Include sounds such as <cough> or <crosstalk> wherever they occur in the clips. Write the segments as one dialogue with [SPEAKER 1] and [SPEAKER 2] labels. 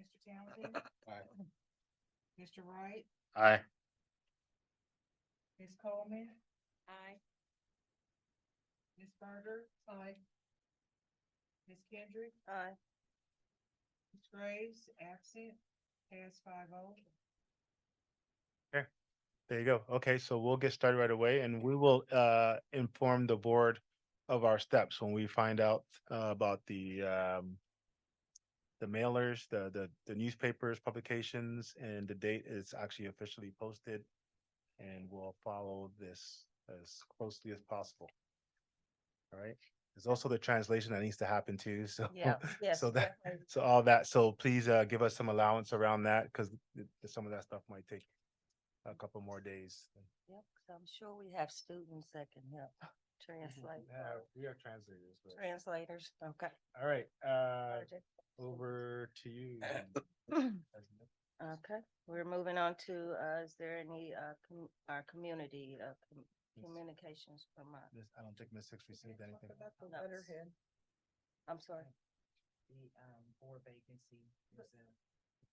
[SPEAKER 1] Mr. Townsend?
[SPEAKER 2] Aye.
[SPEAKER 1] Mr. Wright,
[SPEAKER 3] Aye.
[SPEAKER 1] Ms. Coleman,
[SPEAKER 4] Aye.
[SPEAKER 1] Ms. Berger? Aye. Ms. Kendrick,
[SPEAKER 4] Aye.
[SPEAKER 1] Ms. Graves, absent, pass five oh.
[SPEAKER 3] There you go. Okay, so we'll get started right away and we will uh inform the board of our steps when we find out uh, about the um the mailers, the the the newspapers, publications, and the date is actually officially posted. And we'll follow this as closely as possible. All right, there's also the translation that needs to happen too, <laughs> so.
[SPEAKER 4] Yeah, yes.
[SPEAKER 3] So that,
[SPEAKER 4] definitely.
[SPEAKER 3] so all that, so please uh give us some allowance around that, because some of that stuff might take a couple more days.
[SPEAKER 4] Yep, 'cause I'm sure we have students that can
[SPEAKER 3] <gasps>
[SPEAKER 4] help translate,
[SPEAKER 3] Yeah, We are translators, but,
[SPEAKER 4] translators, okay.
[SPEAKER 3] all right, uh,
[SPEAKER 4] project.
[SPEAKER 3] over to you.
[SPEAKER 5] <coughs>
[SPEAKER 4] Okay, we're moving on to, uh, is there any, uh, com- our community, uh, com- communications from, uh,
[SPEAKER 3] Miss- I don't think Miss Hicks received anything.
[SPEAKER 4] No. I'm sorry.
[SPEAKER 1] The, um, board vacancy is a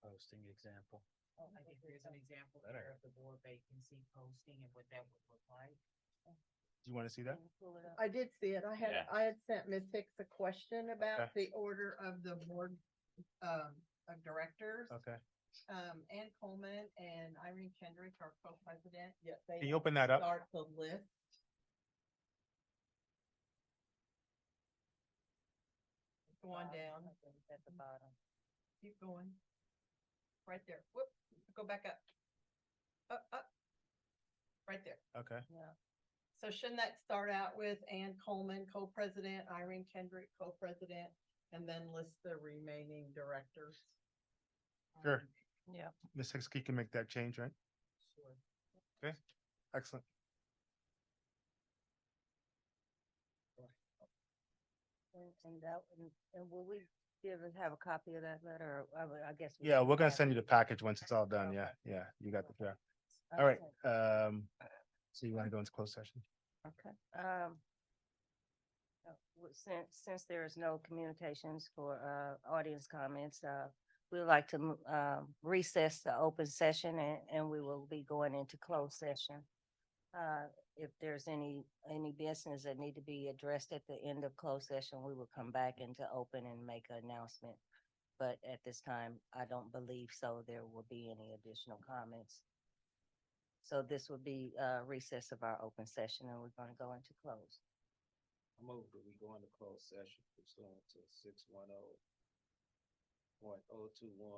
[SPEAKER 2] Posting example.
[SPEAKER 5] Oh,
[SPEAKER 1] I think there's an example
[SPEAKER 2] Better.
[SPEAKER 1] there of the board vacancy posting and what that would look like.
[SPEAKER 3] Do you want to see that?
[SPEAKER 4] Can you pull it up?
[SPEAKER 5] I did see it. I had,
[SPEAKER 2] Yeah.
[SPEAKER 5] I had sent Ms. Hicks a question about the order of the board, um, of directors.
[SPEAKER 3] Okay,
[SPEAKER 5] Um, Ann Coleman and Irene Kendrick are co-president, yet they.
[SPEAKER 3] can you open that up?
[SPEAKER 5] Start the list. Go on
[SPEAKER 4] Bottom,
[SPEAKER 1] Uh,
[SPEAKER 5] down, Mm-hmm.
[SPEAKER 4] I think At the bottom.
[SPEAKER 5] keep going. Right there, whoop, go back up. Up, up. Uh, Right there.
[SPEAKER 3] Okay,
[SPEAKER 5] So shouldn't that start out with Ann Coleman, co-president, Irene Kendrick, co-president, and then list the remaining directors?
[SPEAKER 3] Sure.
[SPEAKER 5] Um,
[SPEAKER 4] Yeah.
[SPEAKER 3] Miss Hicks, you can make that change, right?
[SPEAKER 5] Sure.
[SPEAKER 3] Excellent.
[SPEAKER 4] And, and that, and, and will we give, and have a copy of that letter? or I, would- I guess. we
[SPEAKER 3] Yeah,
[SPEAKER 4] have
[SPEAKER 3] we're gonna
[SPEAKER 4] that.
[SPEAKER 3] send you the package once it's all done. Yeah, yeah, you got the draft. All right,
[SPEAKER 4] Okay.
[SPEAKER 3] um, so you want to go into closed session?
[SPEAKER 4] Okay, um. uh, w- Since, since there is no communications for, uh, audience comments, uh, we would like to, m- um, recess the open session and, and we will be going into closed session. Uh, if there's any, any business that need to be addressed at the end of closed session, we will come back into open and make an announcement. But at this time, I don't believe so. There will be any additional comments. So this will be uh recess of our open session and we're gonna go into close.
[SPEAKER 2] I move that we go into closed session pursuant to six one oh point oh two one.